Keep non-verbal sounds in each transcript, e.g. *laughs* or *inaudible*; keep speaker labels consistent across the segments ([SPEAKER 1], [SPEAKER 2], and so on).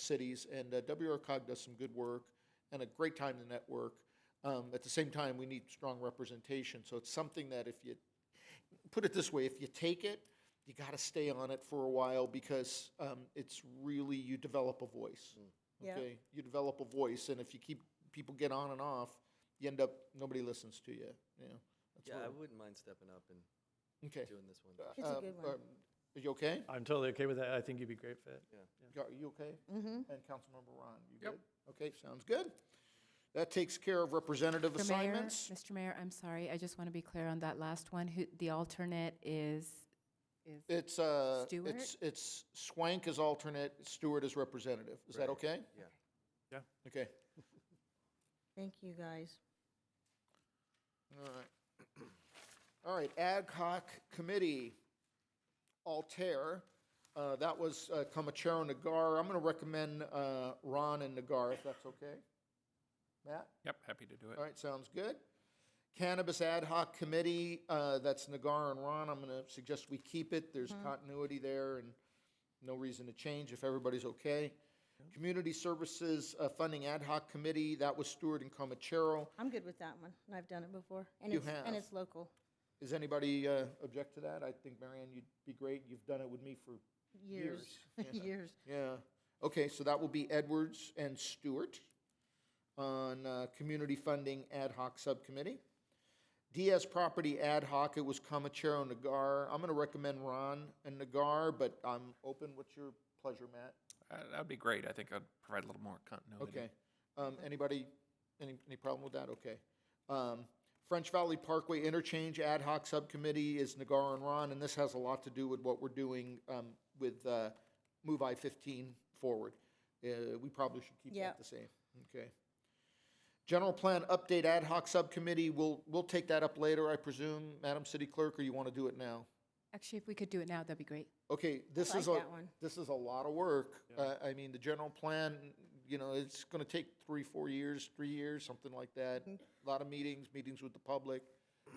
[SPEAKER 1] cities, and uh, WRCOG does some good work and a great time to network. Um, at the same time, we need strong representation. So it's something that if you put it this way, if you take it, you got to stay on it for a while because um, it's really you develop a voice.
[SPEAKER 2] Mm.
[SPEAKER 3] Yeah.
[SPEAKER 1] Okay, you develop a voice, and if you keep people get on and off, you end up nobody listens to you. Yeah, that's
[SPEAKER 2] Yeah, I
[SPEAKER 1] what-
[SPEAKER 2] wouldn't mind stepping up and
[SPEAKER 1] okay.
[SPEAKER 2] doing this one.
[SPEAKER 1] Uh,
[SPEAKER 3] It's a
[SPEAKER 1] um,
[SPEAKER 3] good one.
[SPEAKER 1] um, Are you okay?
[SPEAKER 4] I'm totally okay with that. I think you'd be a great fit.
[SPEAKER 1] Are you okay? Mm-hmm. And Councilmember Ron, you good? Okay, sounds good. That takes care of representative
[SPEAKER 5] Mr. Mayor-
[SPEAKER 1] assignments.
[SPEAKER 5] Mr. Mayor, I'm sorry, I just want to be clear on that last one. Who, the alternate is, is,
[SPEAKER 1] It's, uh,
[SPEAKER 5] Stewart?
[SPEAKER 1] it's, it's Swank as alternate, Stewart as representative. Is that
[SPEAKER 2] Right.
[SPEAKER 1] okay?
[SPEAKER 2] Yeah.
[SPEAKER 4] Yeah.
[SPEAKER 1] Okay,
[SPEAKER 3] Thank you, guys.
[SPEAKER 1] all right. All right, ad hoc committee, Altair. Uh, that was, uh, Comachero Nagar. I'm gonna recommend, uh, Ron and Nagar, if that's okay. Matt?
[SPEAKER 6] Yep, happy to do it.
[SPEAKER 1] All right, sounds good. Cannabis Ad Hoc Committee, uh, that's Nagar and Ron. I'm going to suggest we keep it. There's continuity there and no reason to change if everybody's okay. Community Services uh, Funding Ad Hoc Committee, that was Stewart and Comachero.
[SPEAKER 3] I'm good with that one, and I've done it before. and
[SPEAKER 1] You
[SPEAKER 3] it's-
[SPEAKER 1] have.
[SPEAKER 3] And it's local.
[SPEAKER 1] Does anybody uh, object to that? I think, Marianne, you'd be great. You've done it with me for,
[SPEAKER 3] Years, *laughs*
[SPEAKER 1] Years, yeah.
[SPEAKER 3] years.
[SPEAKER 1] yeah. Okay, so that will be Edwards and Stewart on uh, Community Funding Ad Hoc Subcommittee. DS Property Ad Hoc, it was Comachero Nagar. I'm going to recommend Ron and Nagar, but I'm open. What's your pleasure, Matt?
[SPEAKER 6] Uh, That'd be great. I think I'd provide a little more continuity.
[SPEAKER 1] Okay. Um, Anybody, any, any problem with that? Okay. Um, French Valley Parkway Interchange Ad Hoc Subcommittee is Nagar and Ron, and this has a lot to do with what we're doing um, with uh, Move I-15 forward. Uh, We probably should keep
[SPEAKER 3] Yeah.
[SPEAKER 1] that the same. Okay. General Plan Update Ad Hoc Subcommittee, we'll, we'll take that up later, I presume, Madam City Clerk, or you want to do it now?
[SPEAKER 5] actually, if we could do it now, that'd be great.
[SPEAKER 1] Okay, this is
[SPEAKER 3] like
[SPEAKER 1] a,
[SPEAKER 3] that one.
[SPEAKER 1] this is a lot of work. Uh, I mean, the general plan, you know, it's gonna take three, four years, three years, something like that. A Lot of meetings, meetings with the public.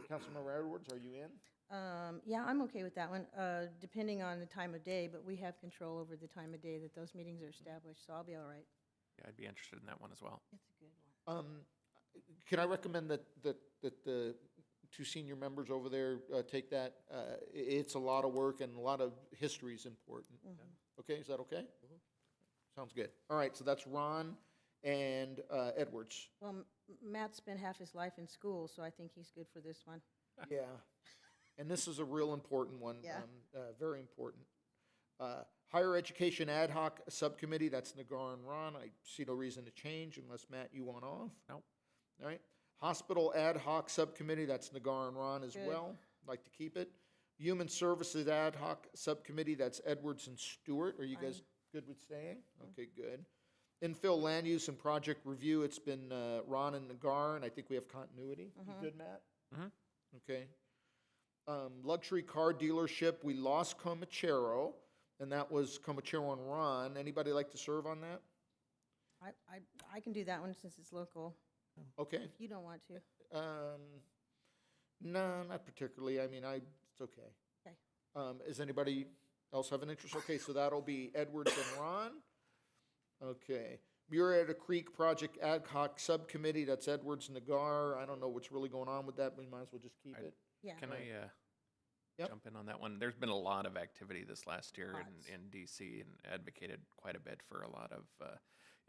[SPEAKER 1] Councilmember Edwards, are you in?
[SPEAKER 3] Um, Yeah, I'm okay with that one, uh, depending on the time of day, but we have control over the time of day that those meetings are established, so I'll be all right.
[SPEAKER 6] Yeah, I'd be interested in that one as well.
[SPEAKER 3] It's a good one.
[SPEAKER 1] Um, can I recommend that, that, that the two senior members over there, uh, take that? Uh, i- it's a lot of work and a lot of history is important. Okay, is that okay? Sounds good. All right, so that's Ron and, uh, Edwards.
[SPEAKER 3] Well, M- Matt spent half his life in school, so I think he's good for this one.
[SPEAKER 1] Yeah. And this is a real important one.
[SPEAKER 3] Yeah.
[SPEAKER 1] um, uh, Very important. Uh, Higher Education Ad Hoc Subcommittee, that's Nagar and Ron. I see no reason to change unless, Matt, you want off.
[SPEAKER 6] Nope.
[SPEAKER 1] All right. Hospital Ad Hoc Subcommittee, that's Nagar and Ron as
[SPEAKER 3] Good.
[SPEAKER 1] well. Like to keep it. Human Services Ad Hoc Subcommittee, that's Edwards and Stewart. Are you guys good with staying? Okay, good. Infill Land Use and Project Review, it's been uh, Ron and Nagar, and I think we have continuity. You good, Matt?
[SPEAKER 6] Mhm.
[SPEAKER 1] Okay. Um, Luxury car dealership, we lost Comachero, and that was Comachero and Ron. Anybody like to serve on that?
[SPEAKER 3] I, I, I can do that one since it's local,
[SPEAKER 1] Okay.
[SPEAKER 3] if you don't want to.
[SPEAKER 1] Um, no, not particularly. I mean, I, it's okay.
[SPEAKER 3] Okay.
[SPEAKER 1] Um, does anybody else have an interest? Okay, so that'll be Edwards and Ron. Okay. Murrieta Creek Project Ad Hoc Subcommittee, that's Edwards, Nagar. I don't know what's really going on with that, but we might as well just keep
[SPEAKER 6] I-
[SPEAKER 1] it.
[SPEAKER 3] Yeah,
[SPEAKER 6] Can
[SPEAKER 1] Right.
[SPEAKER 6] I uh,
[SPEAKER 1] Yep.
[SPEAKER 6] jump in on that one? There's been a lot of activity this last year
[SPEAKER 3] Lots.
[SPEAKER 6] in, in DC and advocated quite a bit for a lot of uh,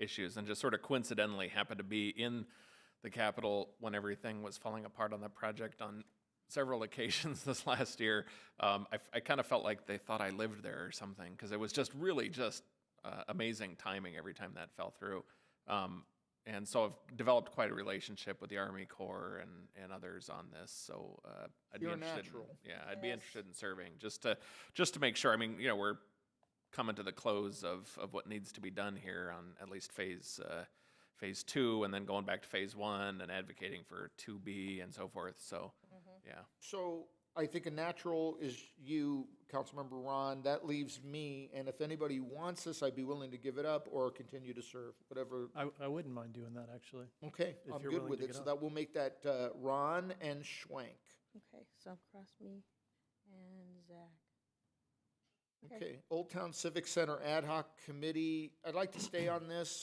[SPEAKER 6] issues and just sort of coincidentally happened to be in the Capitol when everything was falling apart on that project on several *laughs* occasions this last year. Um, I, kind of felt like they thought I lived there or something because it was just really just uh, amazing timing every time that fell through. Um, and so I've developed quite a relationship with the Army Corps and, and others on this. So uh, I'd
[SPEAKER 1] You're a
[SPEAKER 6] be interested.
[SPEAKER 1] natural.
[SPEAKER 6] In, yeah, I'd be interested in serving just to just to make sure. I mean, you know, we're coming to the close of of what needs to be done here on at least phase. Uh, Phase two, and then going back to phase one, and advocating for two B and so forth. So, yeah.
[SPEAKER 1] So I think a natural is you, Councilmember Ron. That leaves me, and if anybody wants this, I'd be willing to give it up or continue to serve, whatever.
[SPEAKER 4] I, I wouldn't mind doing that, actually.
[SPEAKER 1] Okay,
[SPEAKER 4] If
[SPEAKER 1] I'm
[SPEAKER 4] you're
[SPEAKER 1] good
[SPEAKER 4] willing
[SPEAKER 1] with
[SPEAKER 4] to
[SPEAKER 1] it.
[SPEAKER 4] get
[SPEAKER 1] So
[SPEAKER 4] on.
[SPEAKER 1] that will make that uh, Ron and Schwank.
[SPEAKER 3] okay, so cross me and Zach. Okay.
[SPEAKER 1] Okay, Old Town Civic Center Ad Hoc Committee, I'd like to stay on this.